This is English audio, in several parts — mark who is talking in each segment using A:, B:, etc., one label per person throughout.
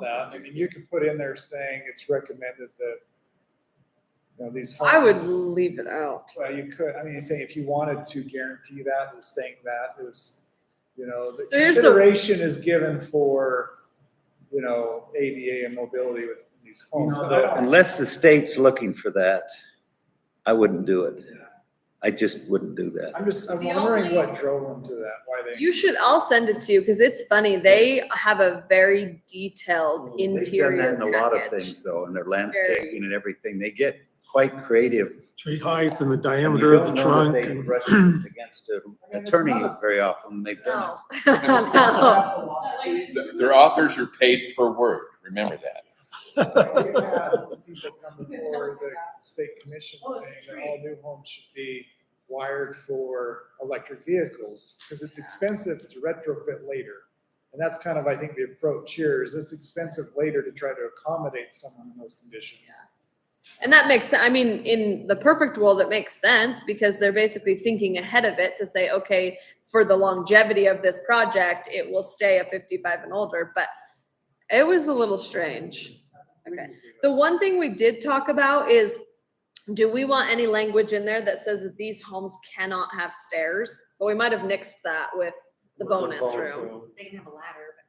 A: that. I mean, you could put in there saying it's recommended that, you know, these.
B: I would
A: homes-
C: Um,
B: leave it out.
A: Well, you could, I mean, say if you wanted to guarantee that, is saying that is, you know, the
B: So here's the-
A: consideration is given for, you know, ADA and mobility with these homes.
D: know,
A: But I
D: the-
A: don't-
C: Unless the state's looking for that, I wouldn't do it. I just wouldn't do that.
A: I'm just, I'm
B: The
A: wondering
B: only-
A: what drove them to that, why they.
B: You should, I'll send it to you because it's funny. They have a very detailed
C: They've done
B: interior
C: that in a lot of
B: package.
C: things though, in their
B: Very-
C: landscaping and everything. They get quite creative.
D: tree height and the
C: And you
D: diameter of
C: don't know that
D: the trunk.
C: they
D: and-
C: brush it Against an
A: it's
C: attorney
A: not-
C: very often, they've done
B: No. No.
E: Th- Their authors are paid per word, remember that.
A: We've had people come before the state commission saying that all new homes should be wired for electric vehicles, because it's expensive to retrofit later. And that's kind of, I think, the approach here, is it's expensive later to try to accommodate someone in those conditions.
B: And that makes, sen- I mean, in the perfect world, it makes sense because they're basically thinking ahead of it to say, okay, for the longevity of this project, it will stay a fifty-five and older, but it was a little strange. Okay. The one thing we did talk about is, do we want any language in there that says that these homes cannot have stairs? But we might have nixed that with the bonus room.
F: They can have a ladder, but not.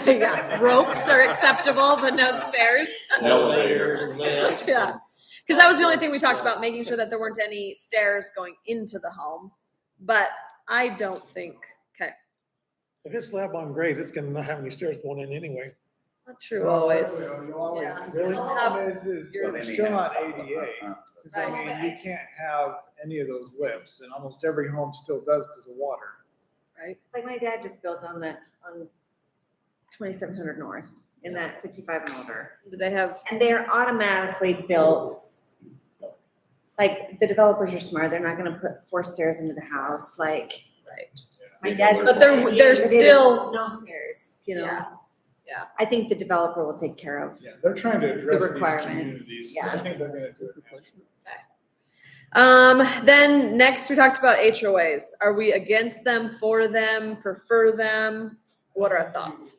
B: Right, yeah. Ropes are acceptable, but no stairs.
E: No
G: Elevators and lifts.
B: Yeah, because that was the only thing we talked about, making sure that there weren't any stairs going into the home. But I don't think, okay,
D: If it's slab on grade, it's gonna not have any stairs going in anyway.
B: not true always.
A: You always,
B: Yeah.
A: the problem is, is
B: You're-
A: they're still not ADA.
C: it.
A: Because I
B: Right.
A: mean, you can't have any of those lifts, and almost every home still does because of water.
B: Right.
F: Like my dad just built on that, on twenty-seven hundred north in that fifty-five and older.
B: Do they have,
F: And they're automatically built. Like, the developers are smart. They're not gonna put four stairs into the house, like.
B: Right.
F: My dad's.
B: But they're- they're still-
F: No stairs, you know?
B: Yeah. Yeah.
F: I think the developer will take care of.
A: Yeah, they're trying to address these
F: requirements,
A: communities. I
F: yeah.
A: think they're gonna do it. naturally.
B: um, then next we talked about HOAs. Are we against them, for them, prefer them? What are our thoughts?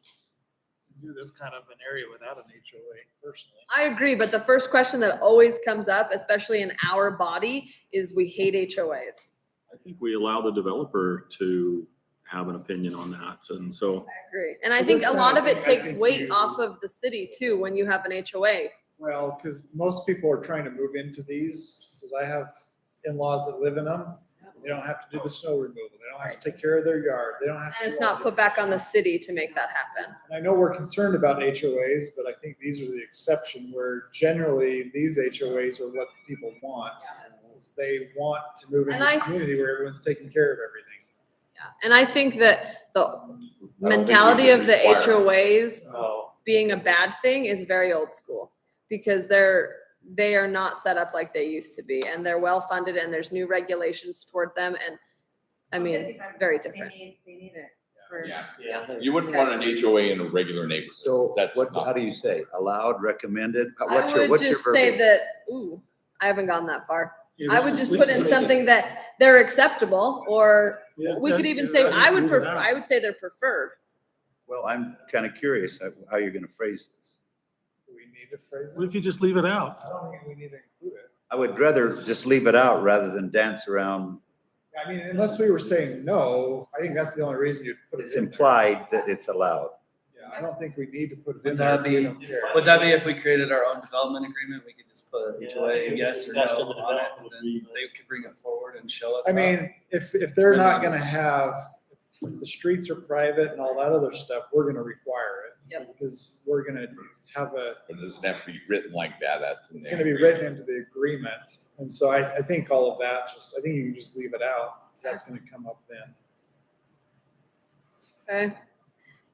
A: Do this kind of an area without an HOA personally.
B: I agree, but the first question that always comes up, especially in our body, is we hate HOAs.
H: I think we allow the developer to have an opinion on that, and so.
B: I agree. And I
A: Well,
B: think
A: this
B: a
A: time,
B: lot
A: I
B: of it
A: think- I
B: takes
A: think
B: weight
A: you-
B: off of the city too, when you have an HOA.
A: Well, because most people are trying to move into these, because I have in-laws that live in them. They don't have to do the snow removal. They don't have to take care of their yard. They don't have to.
B: And it's
A: do all
B: not put
A: this.
B: back on the city to make that happen.
A: And I know we're concerned about HOAs, but I think these are the exception where generally these HOAs are what people want.
B: Yes.
A: is They want to move
B: And
A: into
B: I-
A: a community where everyone's taking care of everything.
B: Yeah. And I think that the
E: we should
B: mentality of the
E: require it.
B: HOAs
G: Oh.
B: being a bad thing is very old school. Because they're, they are not set up like they used to be and they're well-funded and there's new regulations toward them and, I mean, very different.
F: They need, they need it for.
E: Yeah.
G: Yeah.
E: You wouldn't want an HOA in a regular neighborhood.
C: So
E: That's
C: what,
E: not-
C: how do you say? Allowed, recommended? How-
B: I
C: Uh, What's your,
B: would
C: what's your
B: just say
C: verbiage?
B: that, ooh, I haven't gone that far. I would just
D: We
B: put
D: can
B: in
D: make it-
B: something that they're acceptable or
D: Yeah,
B: we could
D: that-
B: even
D: yeah,
B: say,
D: that
B: I
D: is
B: would,
D: leaving
B: pref-
D: out.
B: I would say they're preferred.
C: Well, I'm kind of curious how how you're going to phrase this.
A: Do we need to phrase
D: What
A: it?
D: if you just leave it out?
A: I don't think we need to include it.
C: I would rather just leave it out rather than dance around.
A: I mean, unless we were saying no, I think that's the only reason you'd put it in.
C: It's
A: there.
C: implied that it's allowed.
A: Yeah, I don't think we need to put it in
G: Would
A: there.
G: that
A: if we
G: be-
A: don't care.
G: Would that be if we created our own development agreement, we could just put
I: Yeah, I think
G: HOA,
I: the
G: yes or no
I: discussion of the
G: on it, and
I: development
G: then
I: agreement.
G: they could bring it forward and show us.
A: I
G: how-
A: mean, if, if they're not
G: Minimums.
A: gonna have, if the streets are private and all that other stuff, we're gonna require it.
B: Yep.
A: Because we're gonna have a,
E: But it doesn't have to be written like that, that's. in
A: it's
E: the
A: gonna be
E: agreement.
A: written into the agreement. And so I, I think all of that, just, I think you can just leave it out, 'cause that's gonna come up then.
B: Okay.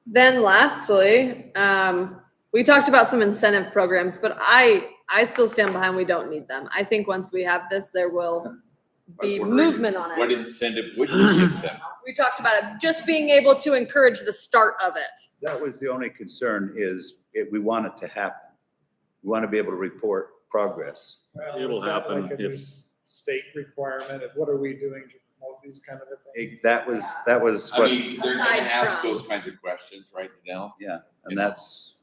B: Then lastly, um, we talked about some incentive programs, but I, I still stand behind, we don't need them. I think once we have this, there will
E: But
B: be
E: we're-
B: movement on
E: What
B: it.
E: incentive would you give them?
B: We talked about it, just being able to encourage the start of it.
C: That was the only concern is it, we want it to happen. We want to be able to report progress.
A: Well,
H: It'll
A: is that
H: happen
A: Like a
H: if-
A: new s- state requirement of what are we doing to promote these kind of things?
C: It- That was, that was
E: I
C: what,
E: mean, they're gonna
B: Aside
E: ask
B: from-
E: those kinds of questions, right, Danelle?
C: and that's